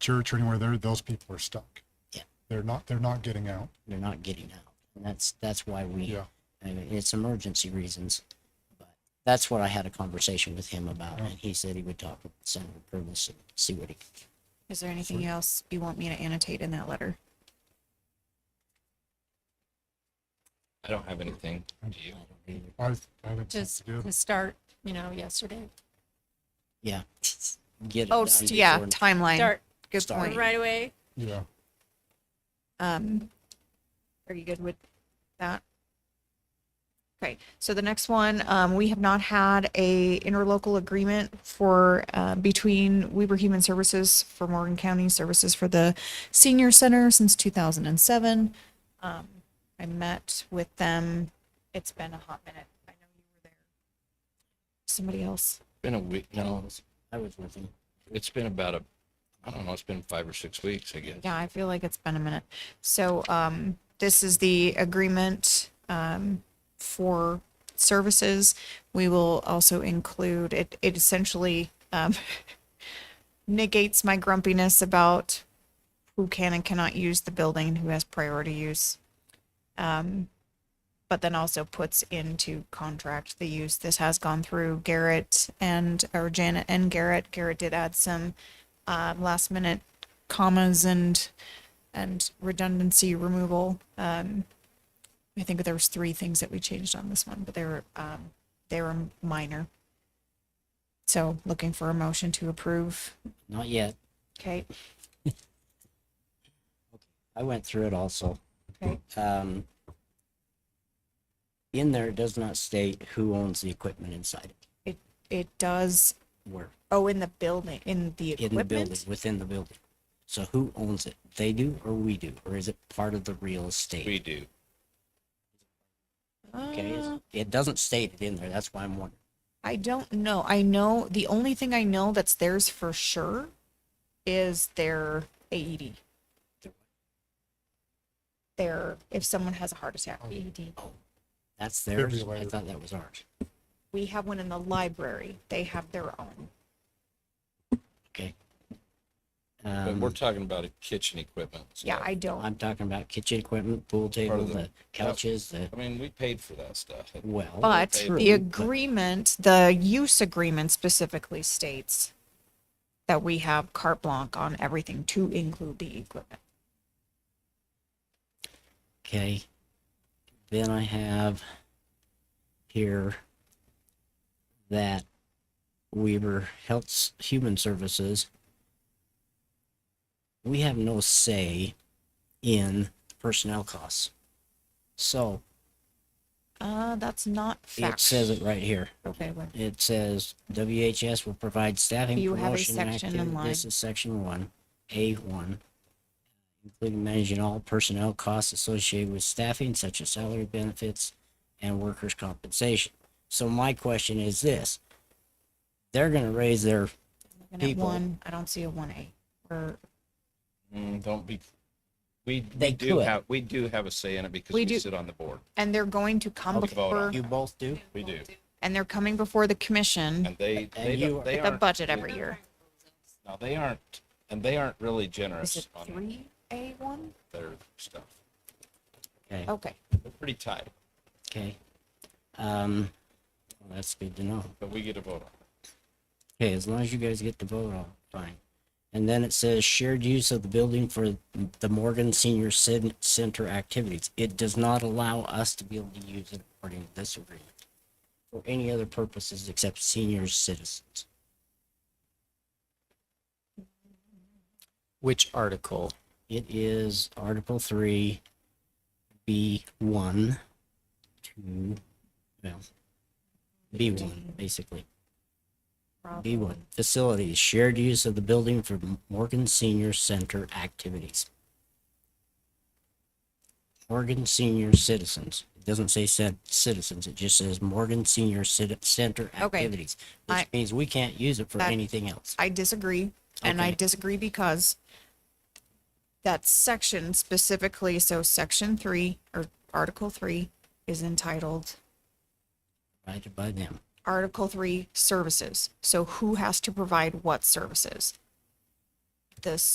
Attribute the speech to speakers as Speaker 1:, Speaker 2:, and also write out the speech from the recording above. Speaker 1: church or anywhere there, those people are stuck.
Speaker 2: Yeah.
Speaker 1: They're not, they're not getting out.
Speaker 2: They're not getting out. And that's, that's why we,
Speaker 1: Yeah.
Speaker 2: I mean, it's emergency reasons. But that's what I had a conversation with him about. And he said he would talk with Senator Purvis and see what he could.
Speaker 3: Is there anything else you want me to annotate in that letter?
Speaker 4: I don't have anything. Do you?
Speaker 2: do.
Speaker 1: I, I think that's
Speaker 5: Just
Speaker 1: good.
Speaker 5: to start, you know, yesterday.
Speaker 2: Yeah. Get it
Speaker 3: Oh,
Speaker 2: done
Speaker 3: s- yeah,
Speaker 2: before-
Speaker 3: timeline.
Speaker 5: Start
Speaker 3: Good
Speaker 2: Start.
Speaker 3: point.
Speaker 5: right away.
Speaker 1: Yeah.
Speaker 3: Um, are you good with that? Okay, so the next one, um, we have not had a interlocal agreement for, uh, between Weber Human Services for Morgan County Services for the Senior Center since two thousand and seven. Um, I met with them. It's been a hot minute. I know you were there. Somebody else.
Speaker 4: Been a week. No,
Speaker 2: I was with him.
Speaker 4: it's been about a. I don't know. It's been five or six weeks. I guess.
Speaker 3: Yeah, I feel like it's been a minute. So, um, this is the agreement, um, for services. We will also include, it, it essentially, um, negates my grumpiness about who can and cannot use the building, and who has priority use. Um, but then also puts into contract the use. This has gone through Garrett and, or Janet and Garrett. Garrett did add some, uh, last minute commas and and redundancy removal. Um, I think there was three things that we changed on this one, but they were um, they were minor. So looking for a motion to approve.
Speaker 2: Not yet.
Speaker 3: Okay.
Speaker 2: I went through it also.
Speaker 3: Okay.
Speaker 2: Um, in there, it does not state who owns the equipment inside it,
Speaker 3: It it does.
Speaker 2: where,
Speaker 3: Oh, in the building, in the
Speaker 2: in the
Speaker 3: equipment.
Speaker 2: building, within the building. So who owns it? They do or we do? Or is it part of the real
Speaker 4: We
Speaker 2: estate?
Speaker 4: do.
Speaker 2: Okay,
Speaker 3: Uh,
Speaker 2: it's- it doesn't state it in there. That's why I'm wondering.
Speaker 3: I don't know. I know the only thing I know that's theirs for sure is their E AED. Their if someone has a heart attack, AED.
Speaker 2: That's
Speaker 1: be
Speaker 2: theirs? I
Speaker 1: later.
Speaker 2: thought that was ours.
Speaker 3: We have one in the library. They have their own.
Speaker 2: Okay.
Speaker 4: But we're
Speaker 2: Um,
Speaker 4: talking about a kitchen equipment. so-
Speaker 3: Yeah, I don't.
Speaker 2: I'm talking about kitchen equipment, pool table,
Speaker 4: the-
Speaker 2: the couches, the,
Speaker 4: I mean, we paid for that stuff.
Speaker 2: well.
Speaker 3: But
Speaker 2: true,
Speaker 3: the agreement, the use agreement specifically states that we have carte blanche on everything to include the equipment.
Speaker 2: Okay. Then I have here that Weaver Health S- Human Services. We have no say in personnel costs. So
Speaker 3: Uh, that's not
Speaker 2: it
Speaker 3: fact.
Speaker 2: says it right here.
Speaker 3: Okay, well,
Speaker 2: It says WHS will provide staffing.
Speaker 3: You have a
Speaker 2: promotion and
Speaker 3: section in
Speaker 2: activity- This
Speaker 3: line.
Speaker 2: is section one, A one. Including managing all personnel costs associated with staffing such as salary benefits and workers' compensation. So my question is this. They're gonna raise their,
Speaker 3: looking at
Speaker 2: people.
Speaker 3: one, I don't see a one A or
Speaker 4: Mm, don't be. We,
Speaker 2: They
Speaker 4: we do
Speaker 2: could.
Speaker 4: have, we do have a say in it because
Speaker 3: We
Speaker 4: we
Speaker 3: do.
Speaker 4: sit on the board.
Speaker 3: and they're going to come
Speaker 4: I'll vote
Speaker 3: before,
Speaker 4: on
Speaker 2: you both do?
Speaker 4: We do.
Speaker 3: and they're coming before the commission,
Speaker 4: And they, they,
Speaker 2: you
Speaker 4: don't-
Speaker 2: are-
Speaker 4: they
Speaker 3: the
Speaker 4: aren't.
Speaker 3: budget every year.
Speaker 4: No, they aren't, and they aren't really
Speaker 3: Is it
Speaker 4: generous on
Speaker 3: three A one?
Speaker 4: their stuff.
Speaker 2: Okay,
Speaker 3: Okay,
Speaker 4: They're pretty tight,
Speaker 2: okay. Um, well, that's good to know.
Speaker 4: but we get a vote on it.
Speaker 2: Okay, as long as you guys get the vote on, it, fine. And then it says shared use of the building for the Morgan Senior Cen- Center activities. It does not allow us to be able to use it according to this agreement for any other purposes except senior citizens.
Speaker 6: Which article?
Speaker 2: It is Article Three, B one, two, well, B one, basically. B one, facilities, shared use of the building for Morgan Senior Center activities. Morgan Senior Citizens, it doesn't say cen- citizens, it just says Morgan Senior Citi- Center activities.
Speaker 3: I-
Speaker 2: Which means we can't use it for
Speaker 3: That-
Speaker 2: anything else.
Speaker 3: I disagree, and I
Speaker 2: Okay.
Speaker 3: disagree because that section specifically, so section three or article three is entitled
Speaker 2: Right by them.
Speaker 3: Article three services. So who has to provide what services? The